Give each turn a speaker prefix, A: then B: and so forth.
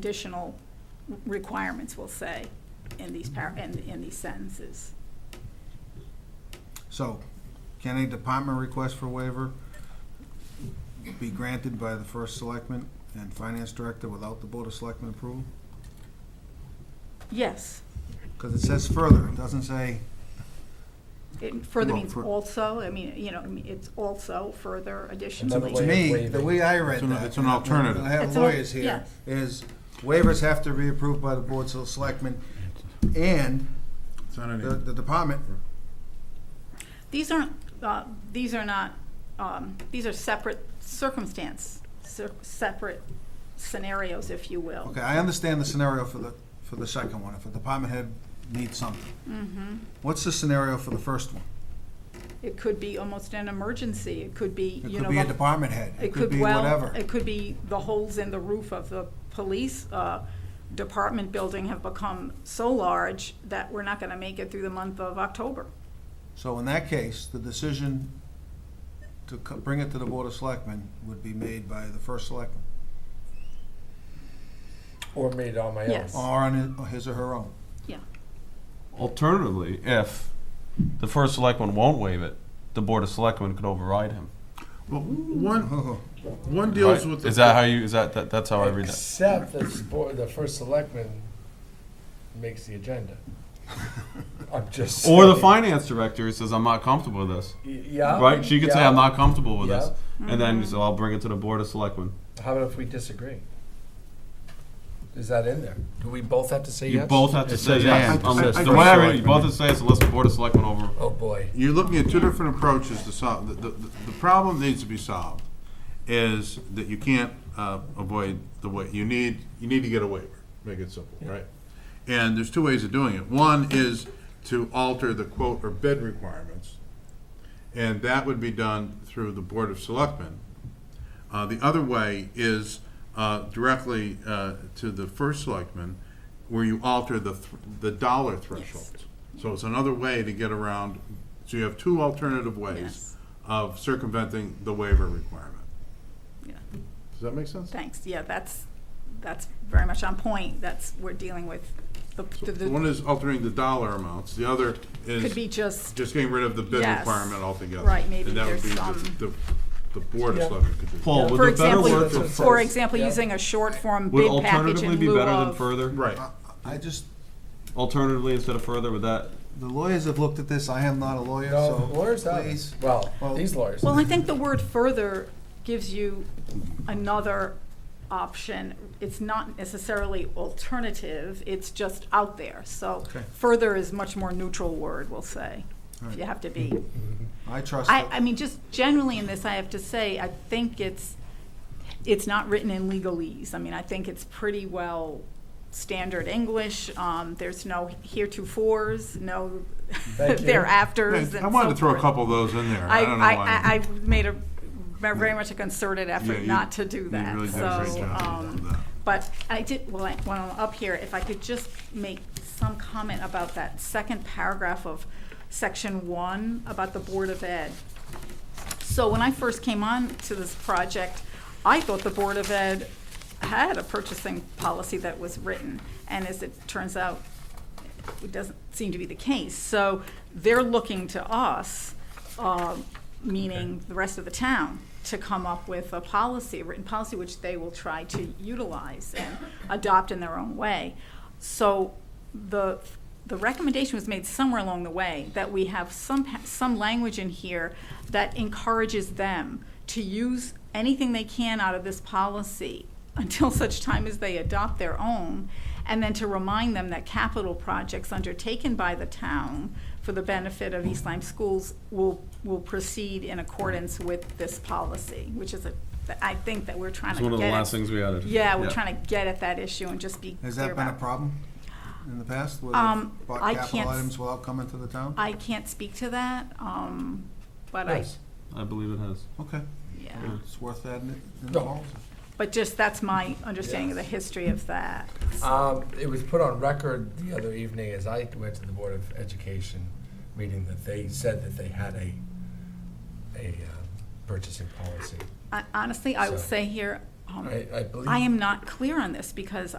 A: conditional requirements will say in these par, in, in these sentences.
B: So, can a department request for waiver be granted by the first selectman and finance director without the board of selectmen approval?
A: Yes,
B: Because it says further, it doesn't say,
A: it further
B: Well,
A: means
B: for-
A: also, I mean, you know, I mean, it's also further
C: Another
A: additionally.
B: to
C: way-
B: me, the way I read
D: It's an-
B: that.
D: it's an
B: and I-
D: alternative.
B: I have
A: It's a-
B: lawyers here, is waivers have to be approved by the board of selectmen and
D: It's not any,
B: the, the department,
A: These aren't, uh, these are not, um, these are separate circumstance, cer- separate scenarios, if you will.
B: okay, I understand the scenario for the, for the second one, if a department head needs something.
A: Mm-hmm.
B: What's the scenario for the first one?
A: It could be almost an emergency, it could be,
B: It
A: you know.
B: could be a
A: the-
B: department head, it could be
A: well-
B: whatever.
A: It could be the holes in the roof of the police uh, department building have become so large that we're not going to make it through the month of October.
B: So in that case, the decision to co- bring it to the Board of Selectmen would be made by the first selectman,
C: Or made on my own.
A: Yes.
B: or on his- or his or her own.
A: Yeah.
E: Alternatively, if the first selectman won't waive it, the board of selectmen could override him.
D: well, one,
C: Uh-huh.
B: Oh,
D: one deals
E: Right?
D: with. the-
E: Is that how you, is that, that- that's how Oh, I read that?
C: Except the board, the first selectman makes the agenda. I'm just.
E: Or the
C: saying.
E: finance director says, I'm not comfortable with this,
C: Y- Yeah.
E: right? She could say, I'm
C: yeah.
E: not comfortable with this.
C: Yeah.
E: And then, so I'll bring it to the board of selectmen.
C: How about if we disagree? Is that in there? Do we both have to say yes?
E: You both have to
D: It
E: say
D: says
E: yes.
D: and.
E: Um,
D: It
E: The
D: says
E: way
D: first
E: I read it, you
D: selectman.
E: both have to say yes unless the board of selectmen over.
C: Oh, boy.
D: You're looking at two different approaches to solve, the, the, the problem needs to be solved is that you can't, uh, avoid the way, you need, you need to get a waiver, make it simple, right? And there's two ways of doing it. One is to alter the quote or bid requirements, and that would be done through the Board of Selectmen. Uh, the other way is, uh, directly, uh, to the first selectman, where you alter the, th- the dollar thresholds. So it's another way to get around, so you have two alternative ways
A: Yes.
D: of circumventing the waiver requirement.
A: Yeah.
D: Does that make sense?
A: Thanks. Yeah, that's, that's very much on point. That's, we're dealing with, the-
D: So
A: the-
D: the one
A: the-
D: is altering the dollar amounts, the other
A: could be
D: is
A: just,
D: just getting rid of the bid
A: Yes.
D: requirement altogether.
A: Right, maybe there's
D: And that
A: some-
D: would be the- the, the Board of
C: Yeah.
D: Selectmen could do that.
E: Paul,
A: for
E: would a better
A: example,
E: word
C: that's what
E: for
C: it
E: fir-
A: for
C: says.
A: example,
C: Yeah.
A: using a short form
E: would
A: bid package
E: alternatively
A: in
E: be
A: lieu
E: better than
A: of.
E: further?
D: Right.
B: I just,
E: Alternatively instead of further, would that,
B: the lawyers have looked at this, I am not a lawyer,
C: No,
B: so
C: lawyers have.
B: please.
C: Well,
B: Well-
C: these lawyers.
A: Well, I think the word further gives you another option. It's not necessarily alternative, it's just out there. So
B: Okay.
A: further is much more neutral word, we'll say, if
B: Right.
A: you have to be.
D: Mm-hmm.
B: I trust
A: I,
B: it.
A: I mean, just generally in this, I have to say, I think it's, it's not written in legalese. I mean, I think it's pretty well standard English. Um, there's no heretofores, no
C: Thank you.
A: thereafters and so
D: I wanted to throw a
A: forth.
D: couple of those in there. I
A: I,
D: don't know
A: I, I,
D: why.
A: I made a, very much a concerted
D: Yeah,
A: effort
D: you-
A: not to do
D: You really
A: that,
D: did a great
A: so,
D: job of
A: um,
D: that.
A: but I did, well, I- when I'm up here, if I could just make some comment about that second paragraph of section one about the Board of Ed. So when I first came on to this project, I thought the Board of Ed had a purchasing policy that was written, and as it turns out, it doesn't seem to be the case. So they're looking to us, uh, meaning the rest of the town, to come up with a policy, a written policy, which they will try to utilize and adopt in their own way. So the, the recommendation was made somewhere along the way that we have some, pa- some language in here that encourages them to use anything they can out of this policy until such time as they adopt their own, and then to remind them that capital projects undertaken by the town for the benefit of East Lyme schools will, will proceed in accordance with this policy, which is a, I think that we're trying to
E: it's
A: get.
E: one of the
A: at-
E: last things we added.
A: Yeah, we're trying to get at that issue and just be clear
B: Has that been a
A: about-
B: problem in the past, where
A: Um,
B: they've
A: I
B: bought
A: can't
B: capital
A: s-
B: items without coming to the town?
A: I can't speak to that, um, but I,
C: Yes.
E: I believe it has.
B: Okay,
A: yeah.
B: it's worth adding it in the
C: No.
B: policy.
A: But just, that's my understanding of the
C: Yes.
A: history of that.
C: Um, it was put on record the other evening as I went to the Board of Education meeting that they said that they had a, a uh, purchasing policy.
A: I- Honestly, I will
C: So-
A: say here, um,
C: I, I believe.
A: I am not clear on this because